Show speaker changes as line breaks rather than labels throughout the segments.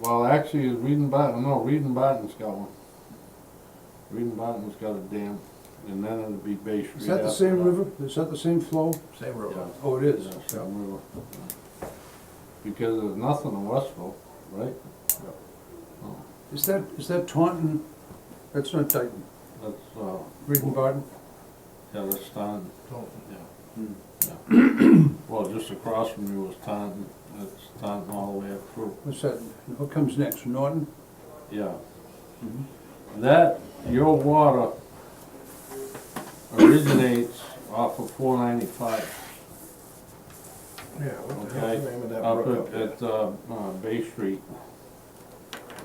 well, actually, Reading Bottom, no, Reading Bottom's got one. Reading Bottom's got a dam, and then it'll be Bay Street.
Is that the
after
same river? Is that the same flow?
Same
Yeah.
road.
Oh, it is.
Yeah,
Yeah.
same river. Because there's nothing in Westville, right? Oh,
Is that, is that Taunton? That's not Dayton.
That's, uh,
Reed and Barton?
yeah, that's Taunton,
Taunton.
yeah. Yeah. Well, just across from you was Taunton, that's Taunton all the way up through.
What's that? What comes next? Norton?
Yeah. Mm-hmm. That, your water originates off of four ninety-five,
Yeah, what the
okay?
hell's the name of that
Up
brook up
at,
there?
at, uh, uh, Bay Street.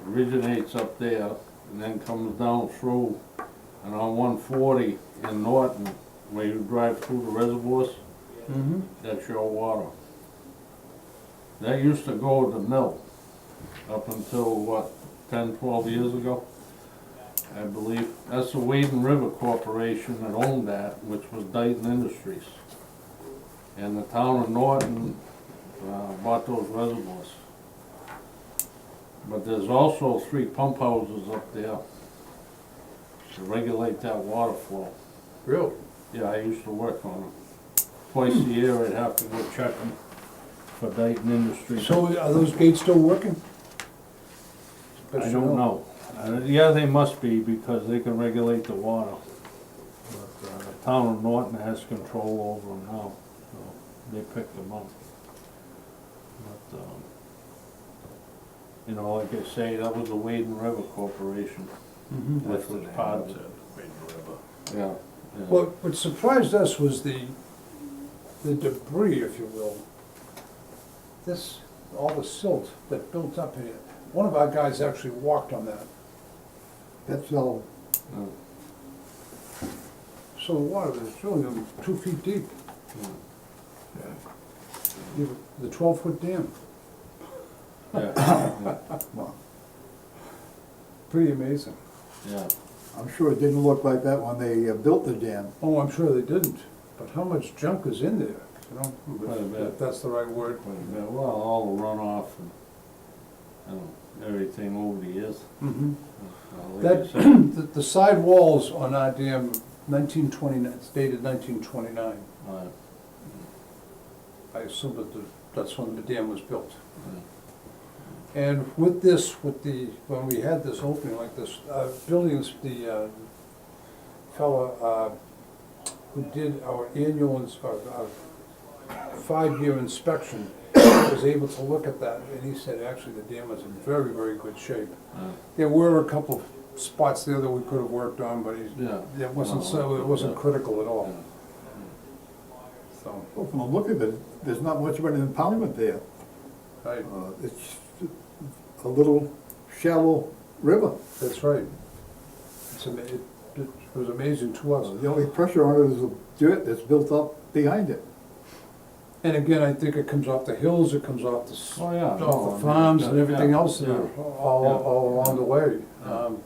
Originates up there and then comes down through and on one forty in Norton, where you drive through the reservoirs,
Mm-hmm.
that's your water. That used to go to the mill up until, what, 10, 12 years ago, I believe. That's the Wading River Corporation that owned that, which was Dayton Industries. And the town of Norton uh, bought those reservoirs. But there's also three pump houses up there to regulate that water flow.
Really?
Yeah, I used to work on them. Twice a year, I'd have to go check them for Dayton Industries.
So are those gates still working?
I don't know. Uh, Yeah, they must be because they can regulate the water. But uh, the town of Norton has control over them now, so they pick them up. But, um, you know, like I say, that was the Wading River Corporation.
Mhm.
Which was part of it.
Wade River.
Yeah.
What, what surprised us was the, the debris, if you will. This, all the silt that built up in it. One of our guys actually walked on that. That's all.
Yeah.
So the water was really um, two feet deep. You- The twelve-foot dam.
Yeah, yeah,
Pretty amazing.
yeah.
I'm sure it didn't look like that when they uh, built the dam.
Oh, I'm sure they didn't, but how much junk is in there, you know?
Quite a bit.
If that's the right word.
Quite a bit. Well, all the runoff and, and everything over the years.
Mm-hmm.
Uh, like I
That,
said,
the- the side walls on our dam, nineteen twenty-nine, it's dated nineteen twenty-nine.
uh,
I assume that the- that's when the dam was built. And with this, with the, when we had this opening like this, uh, buildings, the uh, fellow uh, who did our annual, ins- our our five-year inspection was able to look at that, and he said, actually, the dam was in very, very good shape.
uh,
There were a couple of spots there that we could have worked on, but he-
Yeah.
it wasn't, so it wasn't critical at all, so,
Well, from the look of it, there's not much of an impoundment there.
I-
Uh, It's a little shallow river.
that's right. It's ama- It it was amazing to us.
Uh, The only pressure on it is the dirt that's built up behind it.
And again, I think it comes off the hills, it comes off the, s-
Oh, yeah.
off the farms and everything else that are all,
Yeah.
all along the way. Um,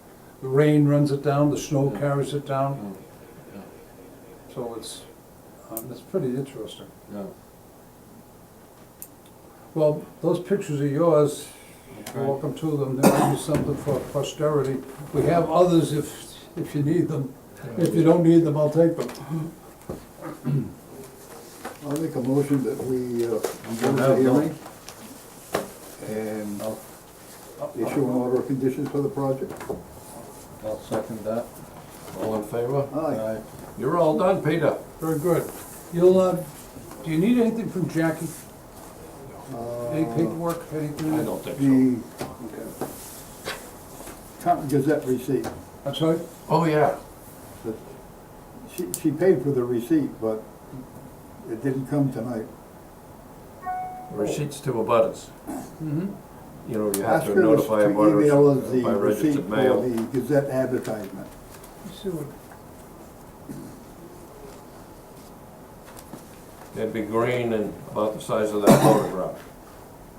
The rain runs it down, the snow carries it down,
Mm.
so it's, um, it's pretty interesting.
Yeah,
Well, those pictures are yours,
Okay.
welcome to them, there might be something for posterity. We have others if, if you need them, if you don't need them, I'll take them.
I'll make a motion that we uh,
don't
go to the
have
hearing and uh, issue an order of conditions for the project.
I'll second that. All in favor?
Aye.
You're all done, Peter.
Very good. You'll, uh, do you need anything from Jackie? Any paperwork, anything?
Uh, I don't think so.
Uh, The
Okay.
Taunton Gazette receipt,
I'm sorry?
Oh, yeah.
that she, she paid for the receipt, but it didn't come tonight.
Receipts to abutters.
Mm-hmm.
You know, you have
Ask
to
her to
notify
email us
abutters
the
by
receipt
registered
for
mail.
the Gazette advertisement.
Let's see what,
It'd be green and about the size of that photograph.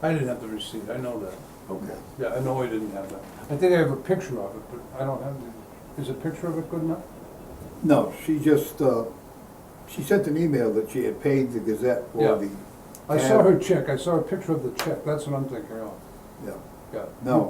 I didn't have the receipt, I know that.
Okay.
Yeah, I know I didn't have that. I think I have a picture of it, but I don't have the, is a picture of it good enough?
No, she just, uh, she sent an email that she had paid the Gazette
Yeah.
for the,
I saw her check, I saw a picture of the check, that's what I'm thinking of.
yeah.
got it.
No.